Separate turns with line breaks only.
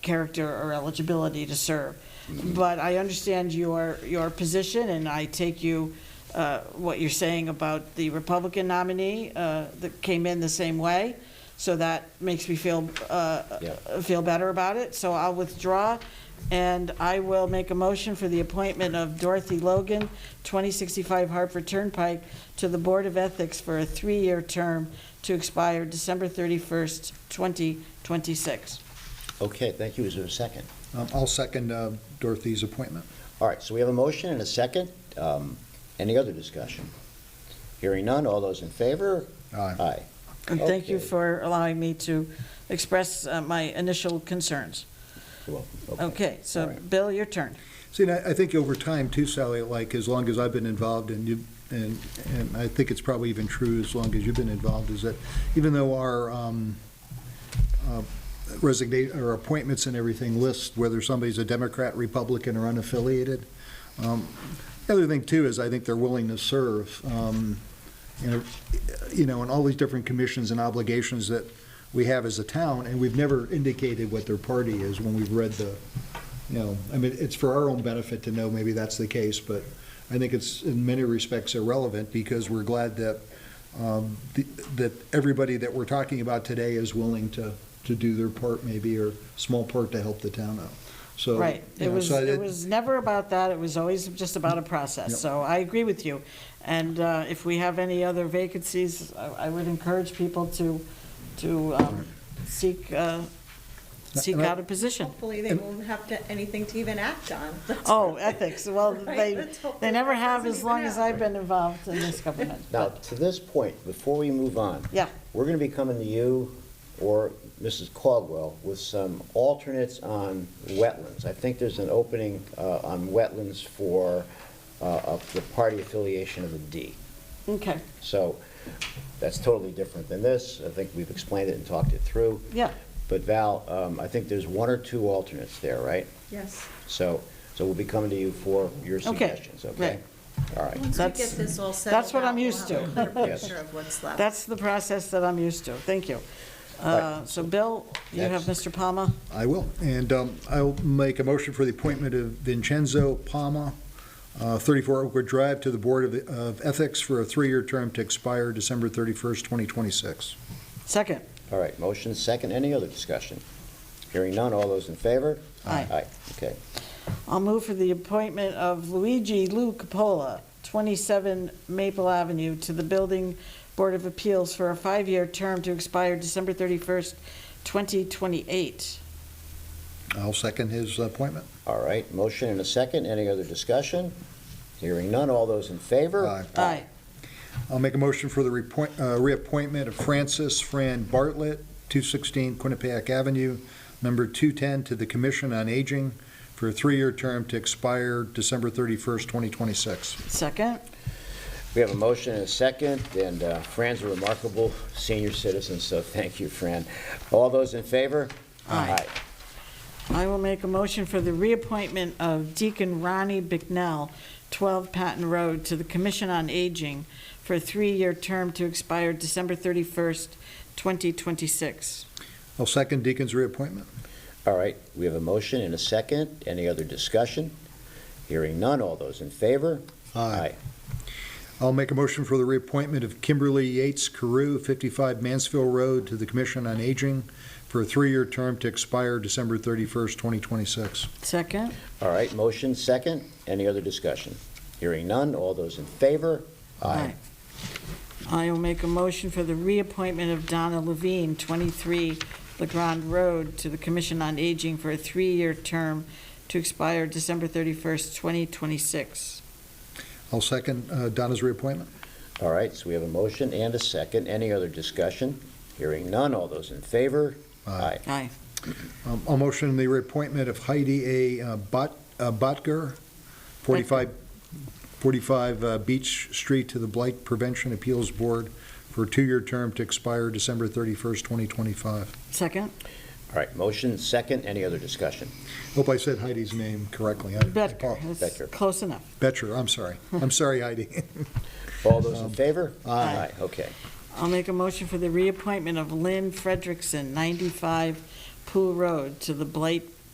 character or eligibility to serve. But I understand your, your position, and I take you, uh, what you're saying about the Republican nominee uh, that came in the same way, so that makes me feel, uh,
Yeah.
feel better about it. So I'll withdraw, and I will make a motion for the appointment of Dorothy Logan, 2065 Hartford Turnpike, to the Board of Ethics for a three-year term to expire December 31st, 2026.
Okay, thank you. Is there a second?
Um, I'll second uh, Dorothy's appointment.
All right, so we have a motion and a second. Um, Any other discussion? Hearing none, all those in favor?
Aye.
Aye.
And thank you
Okay.
for allowing me to express uh, my initial concerns.
You're welcome.
Okay,
All
so
right.
Bill, your turn.
See, and I, I think over time too, Sally, like, as long as I've been involved and you, and, and I think it's probably even true as long as you've been involved, is that even though our um, uh, resignate, or appointments and everything list whether somebody's a Democrat, Republican, or unaffiliated, um, the other thing too is I think they're willing to serve, um, you know, you know, and all these different commissions and obligations that we have as a town, and we've never indicated what their party is when we've read the, you know, I mean, it's for our own benefit to know maybe that's the case, but I think it's in many respects irrelevant because we're glad that, um, the- that everybody that we're talking about today is willing to, to do their part maybe, or small part to help the town out. So.
Right.
you
It
know,
was,
so I-
it was never about that. It was always just about a process.
Yep.
So I agree with you. And uh, if we have any other vacancies, I I would encourage people to, to um, seek, uh, seek
And I-
out a position.
Hopefully, they won't have to, anything to even act on.
Oh, ethics. Well,
Right,
they,
let's hope
they
that
never
that
have
doesn't
as
even
long as
happen.
I've been involved in this government.
Now,
But,
to this point, before we move on,
uh, Yeah.
we're going to be coming to you or Mrs. Caldwell with some alternates on wetlands. I think there's an opening uh, on wetlands for uh, of the party affiliation of the D.
Okay,
So that's totally different than this. I think we've explained it and talked it through.
yeah.
But Val, um, I think there's one or two alternates there, right?
Yes.
So, so we'll be coming to you for your suggestions, okay? All right.
Once we get
That's-
this all settled
that's what
out,
I'm
we'll
used
have a
to.
clear
Yes.
picture of what's left.
That's the process that I'm used to. Thank you. Uh, So Bill, you have Mr. Palma?
I will. And um, I'll make a motion for the appointment of Vincenzo Palma, uh, 34 Oakwood Drive, to the Board of- of Ethics for a three-year term to expire December 31st, 2026.
Second.
All right, motion second, any other discussion? Hearing none, all those in favor?
Aye.
Aye, okay.
I'll move for the appointment of Luigi Lou Capola, 27 Maple Avenue, to the Building Board of Appeals for a five-year term to expire December 31st, 2028.
I'll second his appointment.
All right, motion and a second, any other discussion? Hearing none, all those in favor?
Aye.
Aye.
I'll make a motion for the reappoint- uh, reappointment of Francis Fran Bartlett, 216 Quinnipiac Avenue, number 210, to the Commission on Aging for a three-year term to expire December 31st, 2026.
Second.
We have a motion and a second, and uh, Fran's a remarkable senior citizen, so thank you, Fran. All those in favor?
Aye. I will make a motion for the reappointment of Deacon Ronnie Bicknell, 12 Patton Road, to the Commission on Aging for a three-year term to expire December 31st, 2026.
I'll second Deacon's reappointment.
All right, we have a motion and a second, any other discussion? Hearing none, all those in favor?
I'll make a motion for the reappointment of Kimberly Yates Carew, 55 Mansfield Road, to the Commission on Aging for a three-year term to expire December 31st, 2026.
Second?
All right, motion second, any other discussion? Hearing none, all those in favor?
I will make a motion for the reappointment of Donna Levine, 23 LaGrande Road, to the Commission on Aging for a three-year term to expire December 31st, 2026.
I'll second uh, Donna's reappointment.
All right, so we have a motion and a second, any other discussion? Hearing none, all those in favor?
Aye.
Aye.
Um, I'll motion the reappointment of Heidi A. Bot- uh, Botger, 45 45 uh, Beach Street, to the Blight Prevention Appeals Board for a two-year term to expire December 31st, 2025.
Second?
All right, motion second, any other discussion?
Hope I said Heidi's name correctly. I- I
Bedker.
apo-
That's
Bedker.
Close enough.
Betcher, I'm sorry. I'm sorry, Heidi.
All those in favor?
Aye.
Okay.
I'll make a motion for the reappointment of Lynn Frederickson, 95 Pool Road to the Blight